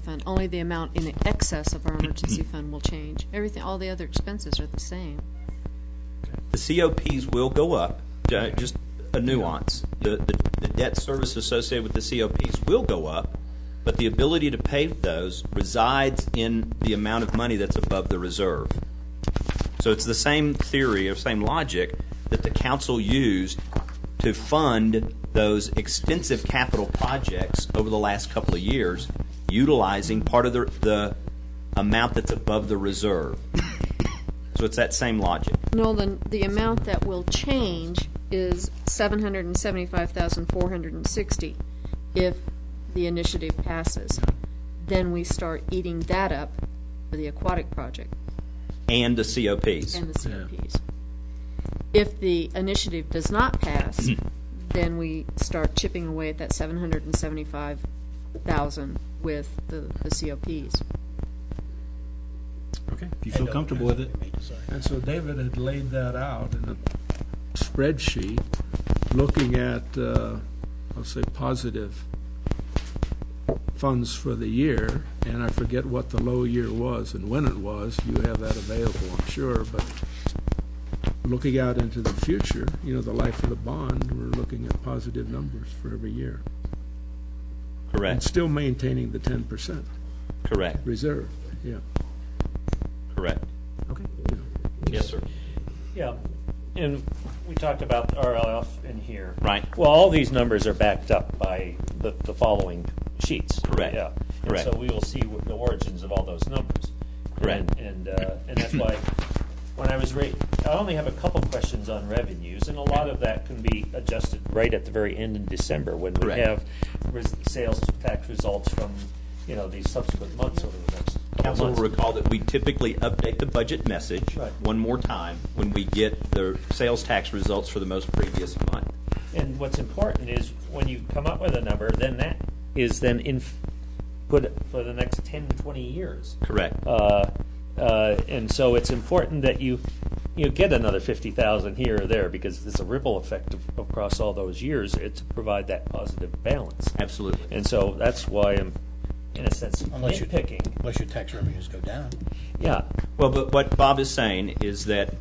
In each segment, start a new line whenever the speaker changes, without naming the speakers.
fund, only the amount in excess of our emergency fund will change. Everything, all the other expenses are the same.
The COPs will go up, ju- just a nuance. The, the the debt service associated with the COPs will go up, but the ability to pay those resides in the amount of money that's above the reserve. So it's the same theory or same logic that the council used to fund those extensive capital projects over the last couple of years, utilizing part of the, the amount that's above the reserve. So it's that same logic.
Nolan, the amount that will change is seven hundred and seventy-five thousand, four hundred and sixty, if the initiative passes. Then we start eating that up for the aquatic project
and the COPs.
and the COPs. If the initiative does not pass, then we start chipping away at that seven hundred and seventy-five thousand with the, the COPs.
Okay, if you feel comfortable with it.
And so David had laid that out in a spreadsheet, looking at, uh, I'll say, positive funds for the year, and I forget what the low year was and when it was, you have that available, I'm sure, but looking out into the future, you know, the life of the bond, we're looking at positive numbers for every year. And
Correct,
still maintaining the ten percent
correct,
reserve, yeah.
correct.
Okay.
Yes, sir.
Yeah, and we talked about RLF in here.
Right.
Well, all these numbers are backed up by the, the following sheets.
Correct.
Yeah.
Correct.
And so we will see what the origins of all those numbers.
Correct.
And, and, uh, and that's why, when I was re, I only have a couple questions on revenues, and a lot of that can be adjusted right at the very end in December, when we
Correct.
have res- sales tax results from, you know, these subsequent months over the next couple
Council
months.
will recall that we typically update the budget message
Right.
one more time when we get the sales tax results for the most previous month.
And what's important is when you come up with a number, then that is then in, put for the next 10, 20 years.
Correct.
Uh, uh, and so it's important that you, you get another 50,000 here or there because there's a ripple effect of- across all those years it to provide that positive balance.
Absolutely.
And so that's why I'm, in a sense,
Unless you-
nitpicking.
Unless your tax revenues go down.
Yeah,
Well, but what Bob is saying is that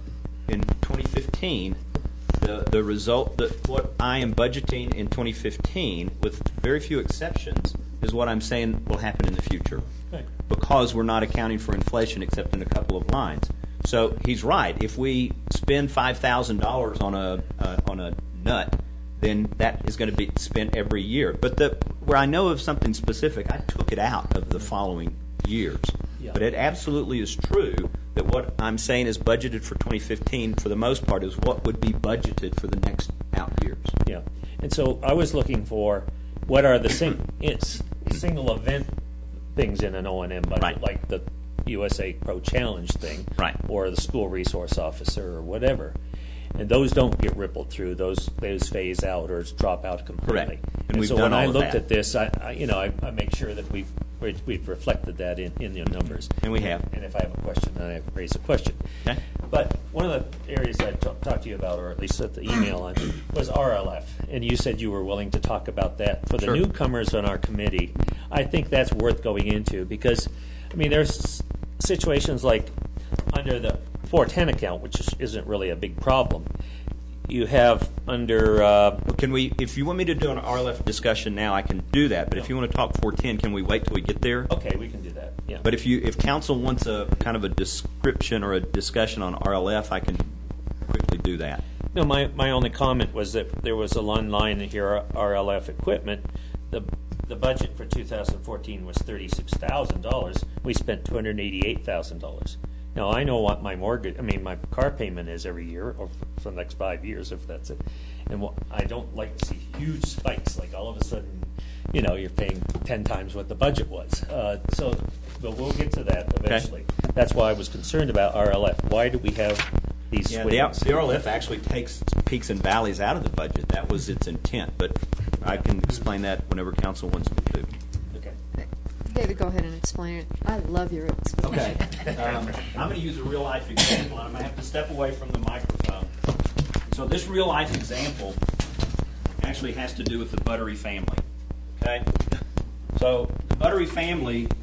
in 2015, the, the result, that what I am budgeting in 2015, with very few exceptions, is what I'm saying will happen in the future.
Right.
Because we're not accounting for inflation except in a couple of lines. So he's right. If we spend $5,000 on a, uh, on a nut, then that is going to be spent every year. But the, where I know of something specific, I took it out of the following years.
Yeah.
But it absolutely is true that what I'm saying is budgeted for 2015, for the most part, is what would be budgeted for the next out years.
Yeah, and so I was looking for what are the sing, it's single event things in an O and M budget,
Right.
like the USA Pro Challenge thing,
Right.
Or the school resource officer or whatever, and those don't get rippled through; those those phase out or drop out completely.
And we've
so
done
when I
all of
looked
that.
at this, I, I you know I, I make sure that we've we- we've reflected that in in the numbers,
And we have.
And if I have a question, then I raise a question.
Okay.
But one of the areas I ta- talked to you about, or at least sent the email on, was RLF. And you said you were willing to talk about that. For the
Sure.
newcomers on our committee, I think that's worth going into because, I mean, there's situations like under the 410 account, which is, isn't really a big problem. You have under, uh,
Well, Can we, if you want me to do an RLF discussion now, I can do that, but if you want to talk 410, can we wait till we get there?
okay, we can do that. Yeah.
But if you, if council wants a kind of a description or a discussion on RLF, I can quickly do that.
No, my, my only comment was that there was a line line here, RLF equipment. The, the budget for 2014 was $36,000. We spent $288,000. Now, I know what my mortgage, I mean, my car payment is every year, or f- for the next five years, if that's it. And what, I don't like to see huge spikes, like all of a sudden, you know, you're paying 10 times what the budget was. Uh, So, but we'll get to that eventually. That's why I was concerned about RLF. Why do we have these
Yeah,
swings?
the out- the RLF actually takes peaks and valleys out of the budget. That was its intent, but I can explain that whenever council wants me to.
Okay.
David, go ahead and explain it. I love your explanation.
Okay. Um, I'm going to use a real life example, and I'm going to have to step away from the microphone. So, this real life example actually has to do with the Buttery family. Okay? So, the Buttery family